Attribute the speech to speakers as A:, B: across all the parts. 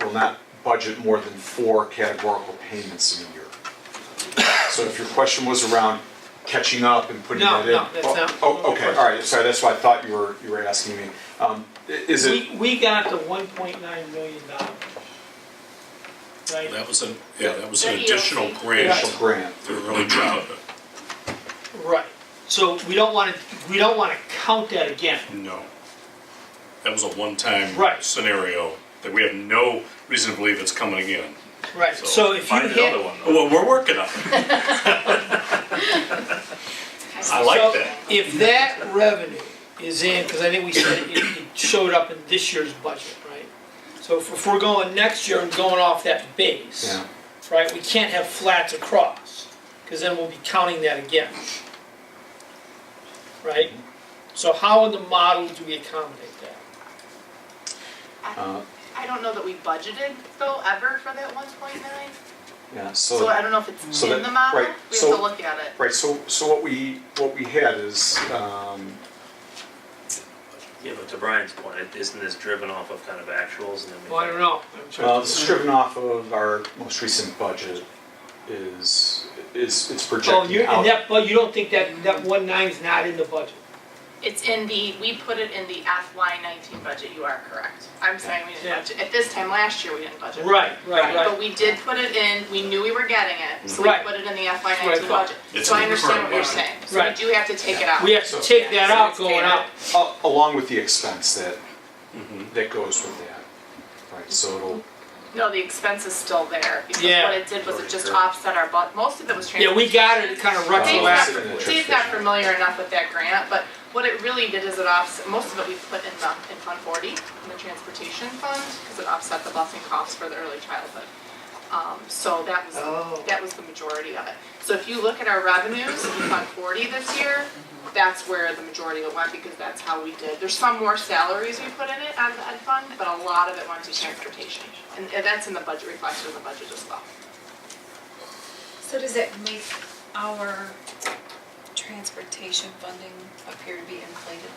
A: will not budget more than four categorical payments in a year. So if your question was around catching up and putting
B: No,
A: that in.
B: no, that's
A: Oh,
B: not-
A: Oh, okay, all right, sorry, that's what I thought you were, you were asking me. Um, i- Is it,
B: We, we got the one point nine million dollars. Right,
C: That was an, yeah, that E was an
D: That ELC.
C: additional
A: initial
C: grant.
A: grant?
C: They're really proud of it.
B: right. So we don't wanna, we don't wanna count that again.
C: No. That was a one-time
B: Right.
C: scenario that we have no reason to believe it's coming again.
B: Right, so if you
E: Find another
B: hit,
E: one. though.
C: Oh, Well, we're working on it. I like
B: so
C: that.
B: if that revenue is in, cause I think we said it, it showed up in this year's budget, right? So if if we're going next year and going off that base,
A: Yeah.
B: right, we can't have flats across, cause then we'll be counting that again. Right? So how in the model do we accommodate that?
D: I
A: Uh,
D: I don't know that we budgeted though ever for that one point nine,
A: Yeah,
D: so I don't know if it's
A: so
D: in
A: that-
D: the model, we
A: right,
D: have
A: so-
D: to look at it.
A: Right, so, so what we, what we had is, um,
E: Yeah, but to Brian's point, it- isn't this driven off of kind of actuals and then we?
B: Well, I don't know. I'm trying
A: well,
B: to-
A: it's stripping off of our most recent budget is, is, it's
B: Oh,
A: projected
B: you, and
A: out.
B: that, but you don't think that, that one nine's not in the budget?
D: It's in the, we put it in the FY nineteen budget, you are correct. I'm saying we
B: Yeah.
D: didn't budget, at this time last year, we didn't budget.
B: Right, right,
D: But
B: right.
D: we did put it in, we knew we were getting it, so we
B: Right.
D: put it in the FY
B: Right,
D: nineteen
B: but
D: budget.
C: it's
D: So
C: in the
D: I understand
C: current
D: what you're
C: budget.
D: saying, so we
B: Right.
D: do have to take it out.
B: We have to take that out going out.
A: A- Uh, Along with the expense that, that goes with that. Right, so it'll,
D: No, the expense is still there, because
B: Yeah.
D: what it did was it just
E: Already
D: offset our bu, most of it was
B: Yeah, we
D: transportation.
B: got it kind of
D: Dave's
A: Oh,
B: retroactive.
D: not,
A: it's in the
D: Dave's not
A: transportation.
D: familiar enough with that grant, but what it really did is it offset, most of it we put in the, in Fund Forty, in the transportation fund, because it offset the busing costs for the early childhood. Um, so that was,
B: Oh.
D: that was the majority of it. So if you look at our revenues in Fund Forty this year, that's where the majority of it went, because that's how we did. There's some more salaries we put in it on the ed fund, but a lot of it went to transportation. And and that's in the budget, reflected in the budget as well.
F: So does that make our transportation funding appear to be inflated?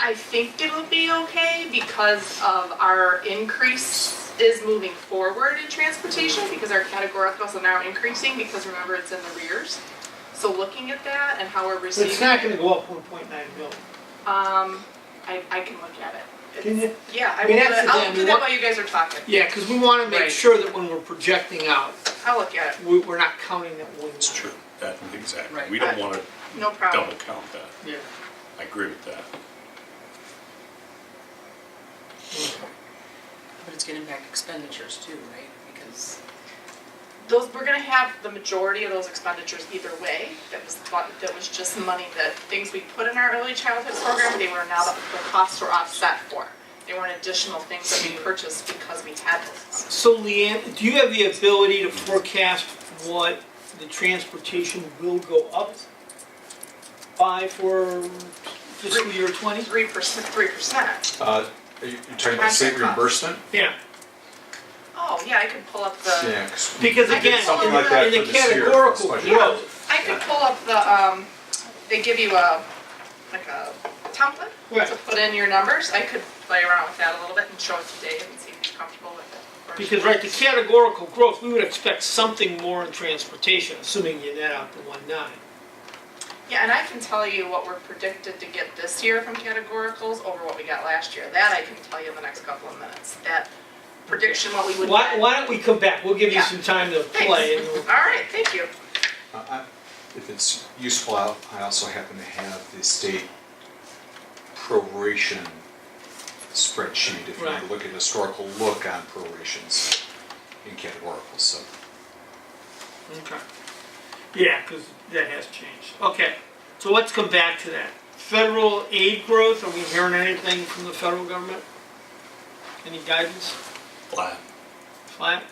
D: I think it'll be okay because of our increase is moving forward in transportation because our categoricals are now increasing because remember it's in the rears. So looking at that and how we're
B: But it's
D: receiving,
B: not gonna go up one point nine million.
D: um, I, I can look at it.
B: Can you?
D: Yeah, I
B: I mean,
D: will,
B: that's the
D: I'll
B: thing,
D: do
B: we
D: that
B: want-
D: while you guys are talking.
B: Yeah, because we want to make
D: Right.
B: sure that when we're projecting out,
D: I'll look at it,
B: we, we're not counting that one.
C: It's
B: nine.
C: true. That, exactly. We don't want to
D: no problem.
C: double count that.
B: Yeah.
C: I agree with that.
G: But it's gonna impact expenditures too, right? Because
D: Those, we're gonna have the majority of those expenditures either way. That was, fun- that was just money that, things we put in our early childhood program, they were now, the costs were offset for. They weren't additional things that we purchased because we had those.
B: So Leanne, do you have the ability to forecast what the transportation will go up by for fiscal year twenty?
D: Three percent, three percent.
A: uh, are you you're talking about state
D: Contract cost.
A: reimbursement?
B: Yeah.
D: Oh, yeah, I could pull up the,
A: Yeah, 'cause we
B: Because
A: did
B: again,
A: something like that
B: in the
A: for this year,
B: categorical
A: this budget.
B: growth,
D: I could pull up the, um, they give you a, like a template
B: Right.
D: to put in your numbers. I could play around with that a little bit and show it to Dave and see if he's comfortable with it. Or-
B: Because, right, the categorical growth, we would expect something more in transportation, assuming you net out the one nine.
D: Yeah, and I can tell you what we're predicted to get this year from categoricals over what we got last year. That I can tell you in the next couple of minutes. That prediction, what we would
B: Why,
D: get.
B: why don't we come back, we'll give you
D: Yeah.
B: some time to
D: Thanks.
B: play, and
D: All
B: we'll-
D: right, thank you.
A: Uh, I- If it's useful, I I also happen to have the state proration spreadsheet, if you want
B: Right.
A: to look at historical look on prorations in categoricals, so.
B: Okay. Yeah, because that has changed, okay, so let's come back to that. Federal aid growth, are we hearing anything from the federal government? Any guidance,
C: Flat.
B: flat?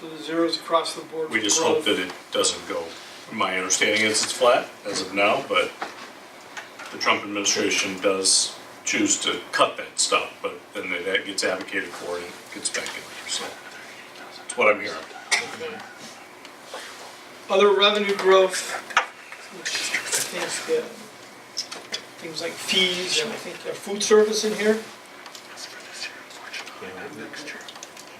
B: So the zeros across the board
C: Mm-hmm. We
B: for
C: just hope
B: growth.
C: that it doesn't go. My understanding is it's flat as of now, but the Trump administration does choose to cut that stuff, but then that gets advocated for and it gets back in there, so. That's what I'm hearing.
B: Other revenue growth, which I think, uh, things like fees, and I think uh, food service in here?
A: yeah,